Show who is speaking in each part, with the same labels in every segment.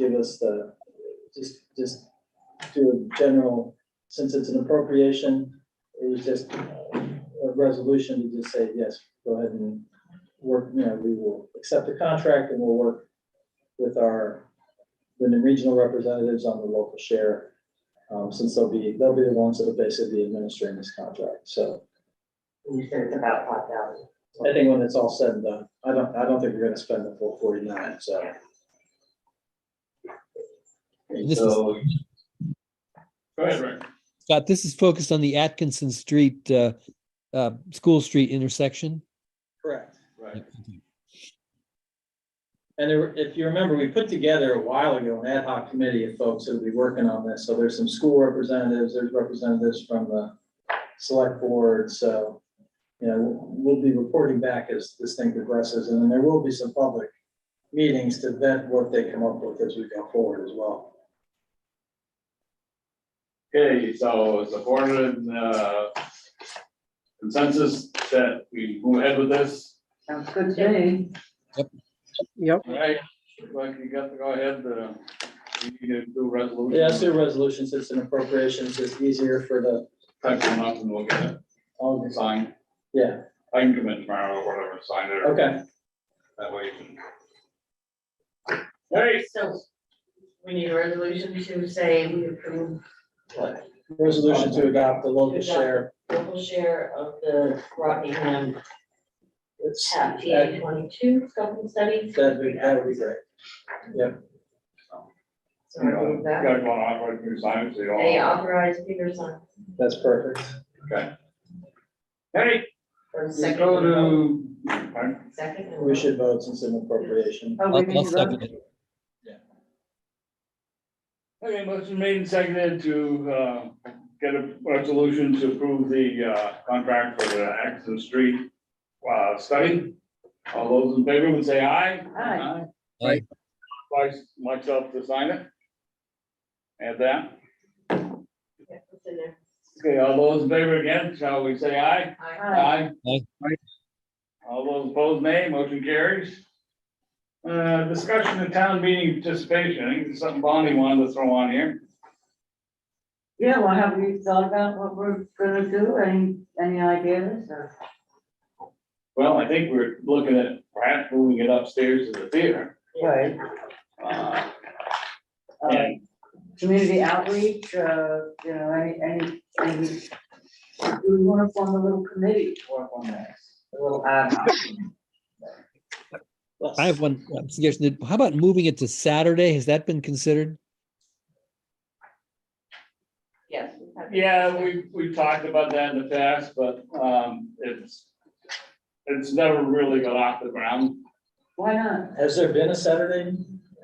Speaker 1: us the, just, just do a general, since it's an appropriation, it was just uh, a resolution to just say, yes, go ahead and work, you know, we will accept the contract and we'll work with our, with the regional representatives on the local share. um, Since they'll be, they'll be the ones that will basically be administering this contract, so.
Speaker 2: You said it's about five thousand.
Speaker 1: I think when it's all said and done, I don't, I don't think we're gonna spend the full forty-nine, so.
Speaker 3: This is,
Speaker 4: So,
Speaker 5: Go ahead, Rick.
Speaker 3: Scott, this is focused on the Atkinson Street, uh, uh, School Street intersection.
Speaker 1: Correct.
Speaker 5: Right.
Speaker 1: And there, were- if you remember, we put together a while ago an ad hoc committee of folks that'll be working on this. So there's some school representatives, there's representatives from the select board, so, you know, we'll be reporting back as this thing progresses. And then there will be some public meetings to vet what they come up with as we go forward as well.
Speaker 5: Okay, so it's a board and, uh, consensus that we move ahead with this,
Speaker 2: Sounds good to me.
Speaker 5: right? Like you got to go ahead, uh, you need to do resolution.
Speaker 1: Yeah, so resolutions, it's an appropriation, it's just easier for the,
Speaker 5: Type them up and we'll get
Speaker 1: all
Speaker 5: it
Speaker 1: the-
Speaker 5: signed.
Speaker 1: yeah,
Speaker 5: I can come in tomorrow or whatever, sign it.
Speaker 1: okay.
Speaker 5: That way you can. All right,
Speaker 2: So we need a resolution to say we approve what,
Speaker 1: Resolution to adopt the local share.
Speaker 2: local share of the Rockingham
Speaker 1: It's,
Speaker 2: TAP
Speaker 1: that
Speaker 2: TA twenty-two scoping study.
Speaker 1: that'd be, that'd be great.
Speaker 2: So
Speaker 5: you
Speaker 2: I
Speaker 5: know,
Speaker 2: move
Speaker 5: you
Speaker 2: that. uh,
Speaker 5: gotta go on, I'm gonna sign it, so you
Speaker 2: They
Speaker 5: all.
Speaker 2: authorize Peter's on
Speaker 1: That's perfect.
Speaker 5: All right,
Speaker 2: for
Speaker 5: we
Speaker 2: second.
Speaker 5: go
Speaker 2: vote.
Speaker 5: to, pardon?
Speaker 2: Second. and Oh,
Speaker 1: We
Speaker 2: vote.
Speaker 1: should vote since it's an appropriation.
Speaker 3: I'll- I'll second it.
Speaker 5: Okay, motion made and seconded to, uh, get a resolution to approve the, uh, contract for the Atkinson Street, uh, study. All those in favor would say aye.
Speaker 2: Aye.
Speaker 3: Aye.
Speaker 5: Right. Vice- Myself to sign it. Add that.
Speaker 2: Yeah, it's in there.
Speaker 5: Okay, all those in favor again, shall we say aye?
Speaker 6: Uh,
Speaker 2: Aye.
Speaker 3: Aye.
Speaker 5: All those opposed, nay. Motion carries. Uh, discussion of town meeting participation. I think there's something Bonnie wanted to throw on here.
Speaker 6: Yeah, well, have you thought about what we're gonna do? Any, any ideas or?
Speaker 5: Well, I think we're looking at perhaps moving it upstairs to the theater.
Speaker 6: Right.
Speaker 5: Uh,
Speaker 6: Uh,
Speaker 5: And,
Speaker 6: community outreach, uh, you know, any, any, any. Do we wanna form a little committee to work on this? A little ad hoc.
Speaker 3: I have one uh, suggestion. How about moving it to Saturday? Has that been considered?
Speaker 2: Yes. we have-
Speaker 5: yeah, we, we talked about that in the past, but, um, it's, it's never really got off the ground.
Speaker 6: Why not?
Speaker 1: Has there been a Saturday?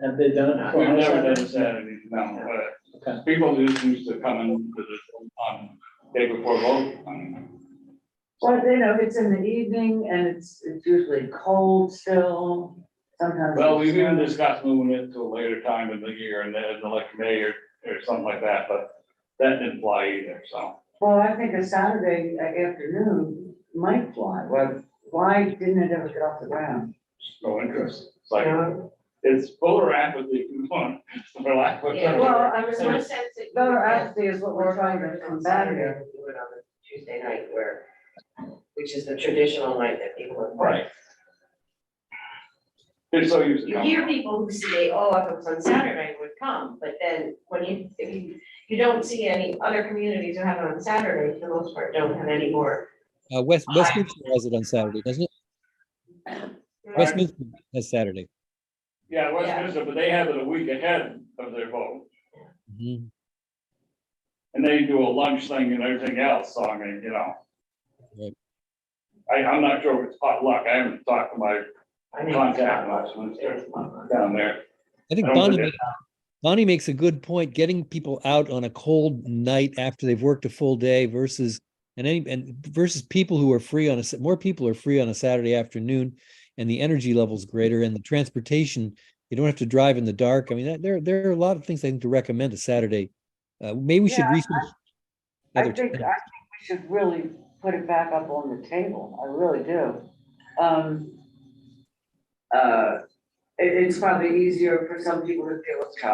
Speaker 1: Have they done it? before?
Speaker 5: We've never done a Saturday, no, but
Speaker 1: Okay,
Speaker 5: people just used to come in to the, on day before vote. I mean,
Speaker 6: Well, you know, it's in the evening and it's, it's usually cold still, sometimes.
Speaker 5: Well, we've even
Speaker 6: it's-
Speaker 5: discussed moving it to a later time in the year and then elect mayor or something like that, but that didn't fly either, so.
Speaker 6: Well, I think a Saturday uh, afternoon might fly. Why, why didn't it ever get off the ground?
Speaker 5: No interest. It's like, it's polar rapidly if you want, for lack of a
Speaker 2: Yeah,
Speaker 5: better
Speaker 2: well,
Speaker 5: word.
Speaker 6: Well,
Speaker 2: I was gonna sense it.
Speaker 6: Voter apathy is what we're trying to
Speaker 2: on
Speaker 6: combat
Speaker 2: Saturday,
Speaker 6: here.
Speaker 2: we do it on the Tuesday night where, which is the traditional night that people are.
Speaker 5: Right. They're so used to
Speaker 2: You
Speaker 5: coming.
Speaker 2: hear people who say, oh, if it was on Saturday, would come, but then when you, if you, you don't see any other communities who have it on Saturday, for the most part, don't have any more.
Speaker 3: Uh, West,
Speaker 2: Aye.
Speaker 3: Westminster has it on Saturday, doesn't it? Westminster has Saturday.
Speaker 5: Yeah, Westminster, but they have it a week ahead of their vote.
Speaker 3: Mhm.
Speaker 5: And they do a lunch thing and everything else, so I mean, you know.
Speaker 3: Right.
Speaker 5: I, I'm not sure if it's potluck, I haven't talked to my
Speaker 2: I mean,
Speaker 5: contact Westminster down there.
Speaker 3: I think
Speaker 5: I don't
Speaker 3: Bonnie,
Speaker 5: think
Speaker 3: ma- Bonnie makes a good point. Getting people out on a cold night after they've worked a full day versus, and any, and versus people who are free on a, s- more people are free on a Saturday afternoon and the energy level's greater and the transportation, you don't have to drive in the dark. I mean, that- there, there are a lot of things I think to recommend a Saturday. Uh, maybe we should
Speaker 6: Yeah, I-
Speaker 3: research.
Speaker 6: I
Speaker 3: other
Speaker 6: think, I think
Speaker 3: times.
Speaker 6: we should really put it back up on the table, I really do. Um, uh, it, it's probably easier for some people to feel it's